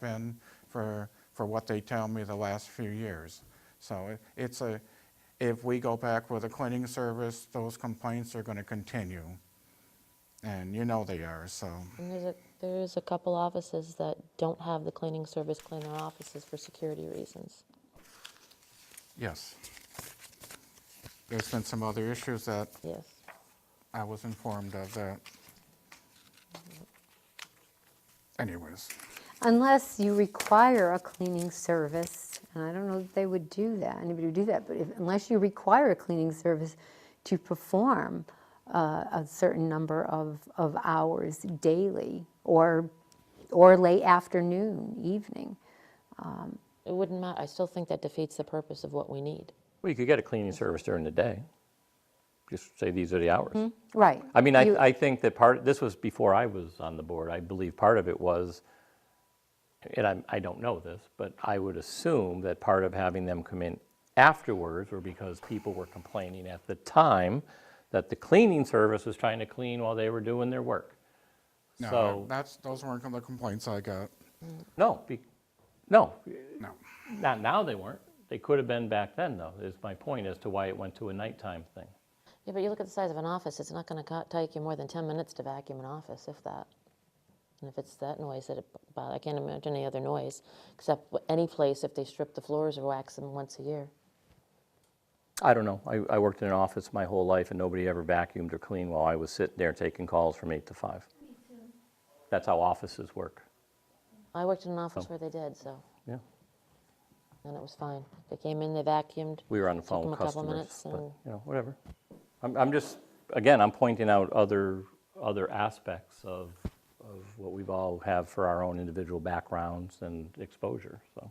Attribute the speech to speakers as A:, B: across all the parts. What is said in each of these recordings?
A: been for, for what they tell me the last few years. So it- it's a, if we go back with a cleaning service, those complaints are going to continue. And you know they are, so,
B: And there's a, there is a couple offices that don't have the cleaning service clean their offices for security reasons.
A: yes. There's been some other issues that
B: Yes.
A: I was informed of that. Anyways,
C: Unless you require a cleaning service, and I don't know that they would do that, anybody would do that, but if, unless you require a cleaning service to perform uh, a certain number of, of hours daily or, or late afternoon, evening.
B: It wouldn't matter. I still think that defeats the purpose of what we need.
D: Well, you could get a cleaning service during the day. Just say these are the hours.
C: Right.
D: I mean, I,
C: You-
D: I think that part, this was before I was on the board. I believe part of it was, and I'm, I don't know this, but I would assume that part of having them come in afterwards were because people were complaining at the time that the cleaning service was trying to clean while they were doing their work.
A: no,
D: So-
A: that's, those weren't the complaints I got,
D: No, be, no,
A: no.
D: not now they weren't. They could have been back then, though, is my point as to why it went to a nighttime thing.
B: Yeah, but you look at the size of an office, it's not going to take you more than 10 minutes to vacuum an office, if that. And if it's that noise that it, bo- I can't imagine any other noise, except w- any place if they strip the floors or wax them once a year.
D: I don't know. I, I worked in an office my whole life and nobody ever vacuumed or cleaned while I was sitting there taking calls from eight to five. That's how offices work.
B: I worked in an office where they did, so,
D: Yeah.
B: and it was fine. They came in, they vacuumed.
D: We were on the
B: Took
D: phone
B: them a
D: with
B: couple
D: customers,
B: minutes
D: but,
B: and-
D: you know, whatever. I'm, I'm just, again, I'm pointing out other, other aspects of, of what we've all have for our own individual backgrounds and exposure, so.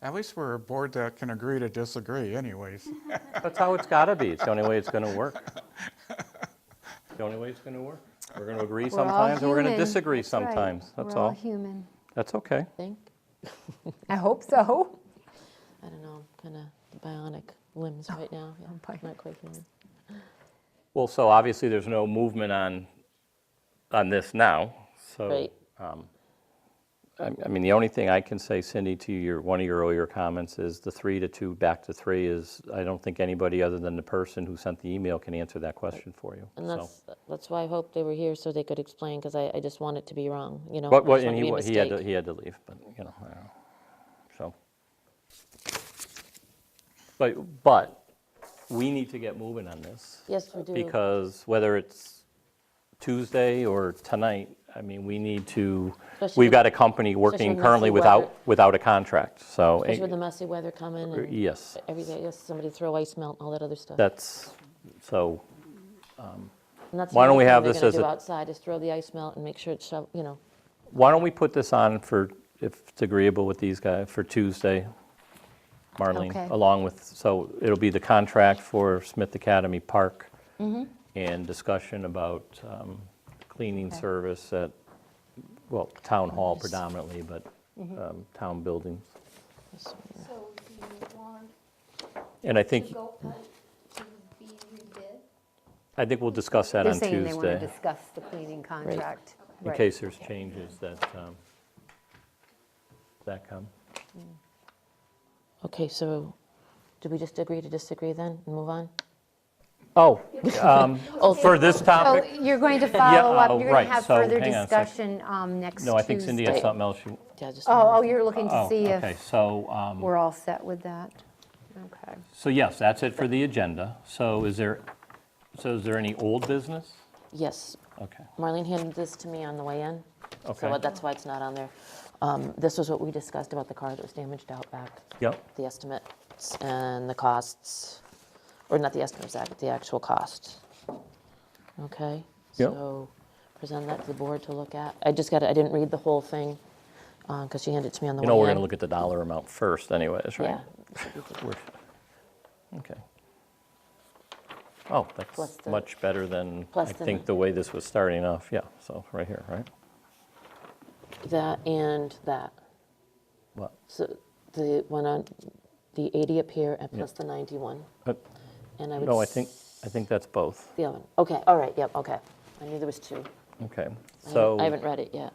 A: At least we're a board that can agree to disagree anyways.
D: That's how it's gotta be. It's the only way it's gonna work. The only way it's gonna work. We're gonna agree
C: we're all
D: sometimes and we're gonna
C: human.
D: disagree
C: That's right.
D: sometimes. That's
C: We're all
D: all.
C: human.
D: That's okay.
B: Think,
C: I hope so.
B: I don't know, kind of bionic limbs
C: Oh,
B: right now. Yeah,
C: bionic.
B: Not quite human.
D: Well, so obviously, there's no movement on, on this now, so.
B: Right.
D: I I mean, the only thing I can say, Cindy, to your, one of your earlier comments is the three to two, back to three is, I don't think anybody other than the person who sent the email can answer that question for you.
B: And
D: so.
B: that's, that's why I hope they were here so they could explain, because I, I just want it to be wrong, you know? I
D: But, what-
B: just
D: and
B: want it
D: he,
B: to be a
D: wa- he had to,
B: mistake.
D: he had to leave, but, you know, I don't know. So. But, but, we need to get moving on this.
B: Yes, we do.
D: Because whether it's Tuesday or tonight, I mean, we need to,
B: Especially
D: we've got a
B: with-
D: company
B: with
D: working
B: messy
D: currently without,
B: weather.
D: without a contract, so. eh, er,
B: Especially with the messy weather coming and.
D: Yes,
B: Every day, yes, somebody throw ice melt and all that other stuff.
D: that's, so,
B: And that's
D: why don't
B: another
D: we
B: thing
D: have
B: they're
D: this
B: gonna
D: as
B: do
D: a-
B: Outside is throw the ice melt and make sure it's, shov- you know,
D: why don't we put this on for, if it's agreeable with these guys, for Tuesday,
C: Okay.
D: Marlene, along with, so it'll be the contract for Smith Academy Park
C: Mm-hmm.
D: and discussion about um, cleaning
C: Okay.
D: service at, well, town hall predominantly, but
C: Mm-hmm.
D: um, town buildings.
B: it's-
E: So do you want
D: And I
E: to
D: think,
E: go out to be rebid?
D: I think we'll discuss that
C: They're
D: on
C: saying they want to
D: Tuesday,
C: discuss the cleaning contract.
D: in
C: Right.
D: case there's changes that, um, that come.
B: okay, so do we just agree to disagree then and move on?
D: Oh, um, for this
C: Oh, So
D: topic?
C: you're going to follow up,
D: oh,
C: you're going
D: right,
C: to have
D: so
C: further
D: hang on a sec.
C: discussion um, next Tuesday.
D: No, I think Cindy has something else you,
B: Yeah, just.
C: Oh, oh, you're looking to
D: oh,
C: see if.
D: okay, so, um,
C: We're all set with that? Okay.
D: so yes, that's it for the agenda. So is there, so is there any old business?
B: Yes,
D: Okay,
B: Marlene handed this to me on the way in. So
D: Okay.
B: that's why it's not on there. Um, This was what we discussed about the car that was damaged out back.
D: yep,
B: The estimates and the costs, or not the estimates, but the actual cost. Okay?
D: Yep.
B: So present that to the board to look at. I just got, it. I didn't read the whole thing because she handed it to me on the way
D: you
B: in.
D: know, we're going to look at the dollar amount first anyways, right?
B: Yeah. it should be good.
D: We're- Okay. Oh,
B: Plus
D: that's
B: the-
D: much better than, I
B: plus the-
D: think, the way this was starting off, yeah, so, right here, right?
B: That and that.
D: What?
B: So the one on, the 80 up here and plus the 91.
D: But,
B: And I would.
D: No, I
B: s-
D: think, I think that's both,
B: The other one. Okay, all right, yep, okay. I knew there was two.
D: okay,
B: I haven't-
D: so.
B: I haven't read it yet.